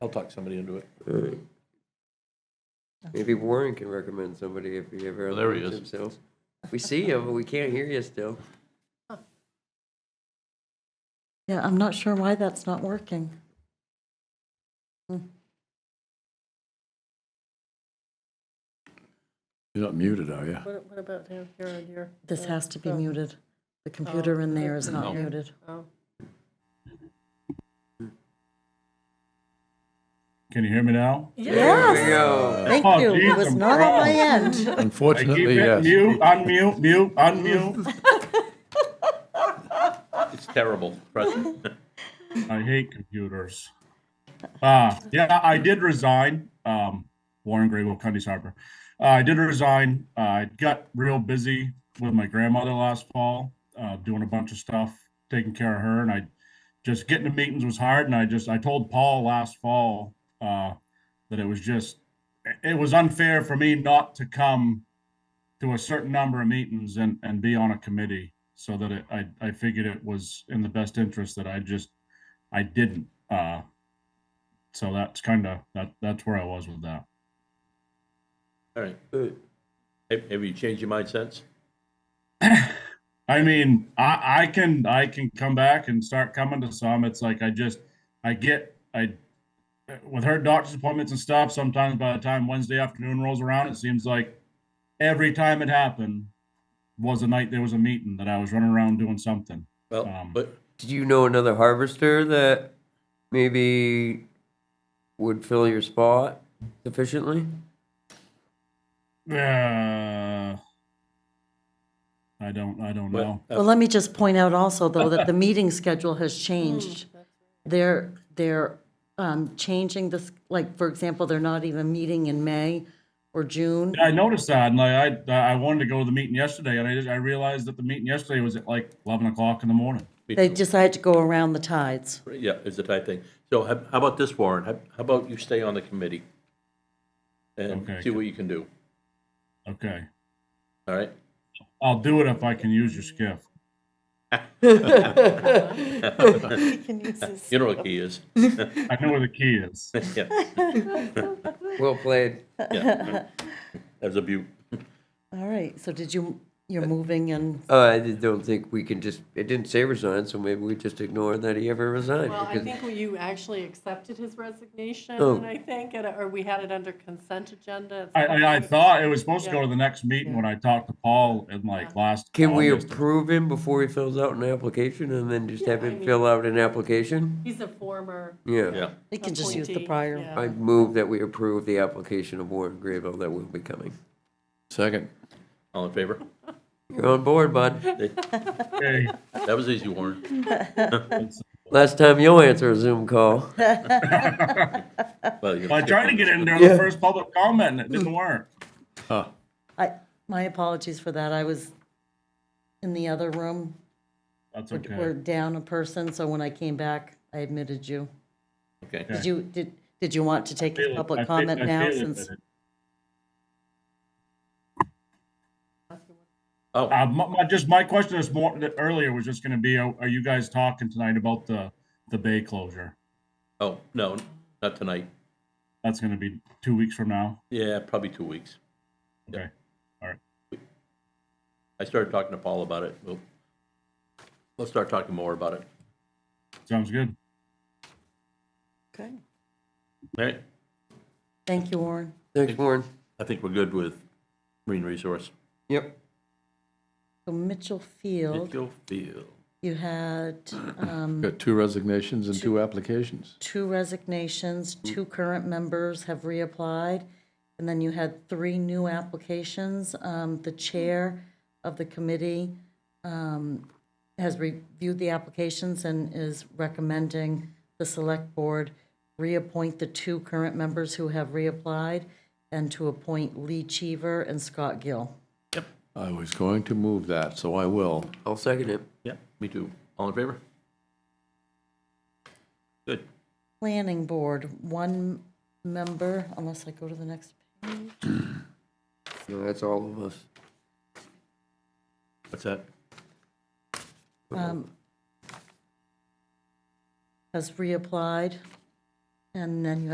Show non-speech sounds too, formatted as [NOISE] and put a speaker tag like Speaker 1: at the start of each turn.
Speaker 1: I'll talk somebody into it.
Speaker 2: Alright. Maybe Warren can recommend somebody if he ever
Speaker 1: Well, there he
Speaker 2: unmutes
Speaker 1: is.
Speaker 2: himself. We see you, but we can't hear you still.
Speaker 3: Yeah, I'm not sure why that's not working.
Speaker 4: You're not muted, are you?
Speaker 5: What, what about down here on your?
Speaker 3: This
Speaker 5: uh,
Speaker 3: has to be
Speaker 5: phone?
Speaker 3: muted. The computer in there is not
Speaker 1: No.
Speaker 3: muted.
Speaker 5: Oh,
Speaker 6: Can you hear me now?
Speaker 2: There
Speaker 3: Yes,
Speaker 2: we go.
Speaker 3: thank
Speaker 6: Oh,
Speaker 3: you. It
Speaker 6: geez,
Speaker 3: was
Speaker 6: I'm
Speaker 3: not on my
Speaker 6: wrong.
Speaker 3: end.
Speaker 6: I
Speaker 4: [LAUGHS]
Speaker 6: keep
Speaker 4: Unfortunately,
Speaker 6: it
Speaker 4: yes.
Speaker 6: mute, unmute, mute, unmute.
Speaker 1: It's terrible. Trust me.
Speaker 6: I hate computers. Uh, yeah, I did resign. Um, Warren Grable, Cundy's Harbor. Uh, I did resign. Uh, I got real busy with my grandmother last fall, uh, doing a bunch of stuff, taking care of her, and I just getting to meetings was hard. And I just I told Paul last fall uh, that it was just it was unfair for me not to come to a certain number of meetings and and be on a committee. So that it, I I figured it was in the best interest that I just I didn't. Uh, so that's kind of that. That's where I was with that.
Speaker 1: [LAUGHS] All right. Have have Uh, you changed your mind since?
Speaker 6: I mean, I I can I can come back and start coming to some. It's like I just I get I with her doctor's appointments and stuff. Sometimes by the time Wednesday afternoon rolls around, it seems like every time it happened was a night there was a meeting that I was running around doing something.
Speaker 1: Well,
Speaker 6: Um,
Speaker 1: but
Speaker 2: Do you know another harvester that maybe would fill your spot sufficiently?
Speaker 6: Uh, I don't I don't
Speaker 1: Well,
Speaker 6: know.
Speaker 3: Well, let me just point out also, though, that the meeting schedule has changed. They're, they're um, changing this, like, for example, they're not even meeting in May or June.
Speaker 6: Yeah, I noticed that, and like I, I wanted to go to the meeting yesterday, and I just, I realized that the meeting yesterday was at like eleven o'clock in the morning.
Speaker 3: They decided to go around the tides.
Speaker 1: yeah, is the type thing. So how how about this, Warren? How how about you stay on the committee? And
Speaker 6: Okay.
Speaker 1: see what you can do,
Speaker 6: Okay,
Speaker 1: all right?
Speaker 6: I'll do it if I can use your skiff.
Speaker 1: You know what he is. [LAUGHS]
Speaker 6: I know where the key is.
Speaker 1: Yeah,
Speaker 2: Well played.
Speaker 1: yeah. As a bu,
Speaker 3: All right, so did you, you're moving and,
Speaker 2: Uh, I just don't think we can just, it didn't say resign, so maybe we just ignore that he ever resigned.
Speaker 5: well, I
Speaker 2: because-
Speaker 5: think you actually accepted his resignation,
Speaker 2: Oh.
Speaker 5: I think, and- or we had it under consent agenda.
Speaker 6: I, I, I thought it was supposed to go to the next meeting when I talked to Paul in like last.
Speaker 2: Can we
Speaker 6: August.
Speaker 2: approve him before he fills out an application and then just have
Speaker 5: Yeah, I
Speaker 2: him
Speaker 5: mean-
Speaker 2: fill out an application?
Speaker 5: He's a former.
Speaker 2: Yeah.
Speaker 1: yeah.
Speaker 3: you can just use the
Speaker 5: appointee,
Speaker 3: prior.
Speaker 5: yeah.
Speaker 2: I move that we approve the application of Warren Grable that will be coming.
Speaker 4: Second.
Speaker 1: All in favor?
Speaker 2: You're on board, bud.
Speaker 6: Okay,
Speaker 1: That was easy, Warren.
Speaker 2: Last time you'll answer a Zoom call.
Speaker 1: Well, you're-
Speaker 6: I tried to get in there on the first public comment, and it didn't work.
Speaker 4: Huh.
Speaker 3: I, my apologies for that. I was in the other room.
Speaker 6: That's
Speaker 3: We're- We're
Speaker 6: okay.
Speaker 3: down a person, so when I came back, I admitted you.
Speaker 1: Okay.
Speaker 3: Did you, did, did you want to take a
Speaker 6: I
Speaker 3: public
Speaker 6: feel-
Speaker 3: comment
Speaker 6: I
Speaker 3: now
Speaker 6: feel
Speaker 3: since?
Speaker 6: it.
Speaker 1: Oh,
Speaker 6: Uh, my, my, just my question is more, that earlier was just gonna be, are are you guys talking tonight about the, the bay closure?
Speaker 1: oh, no, not tonight.
Speaker 6: That's gonna be two weeks from now.
Speaker 1: Yeah, probably two weeks.
Speaker 6: Okay.
Speaker 1: I started talking to Paul about it. We'll, let's start talking more about it.
Speaker 6: Sounds good.
Speaker 3: Okay.
Speaker 1: All right,
Speaker 3: Thank you, Warren.
Speaker 2: Thanks, Warren.
Speaker 1: I think we're good with Marine Resource.
Speaker 2: Yep.
Speaker 3: So Mitchell Field,
Speaker 1: Mitchell Field.
Speaker 3: you had um,
Speaker 4: Got two resignations and two applications.
Speaker 3: two resignations, two current members have reapplied, and then you had three new applications. Um, The chair of the committee um, has reviewed the applications and is recommending the select board reappoint the two current members who have reapplied and to appoint Lee Cheever and Scott Gill.
Speaker 4: I was going to move that, so I will.
Speaker 2: I'll second it.
Speaker 1: Yeah, me too. All in favor? Good.
Speaker 3: Planning Board, one member, unless I go to the next.
Speaker 2: No, that's all of us.
Speaker 1: What's that?
Speaker 3: um, Has reapplied, and then you have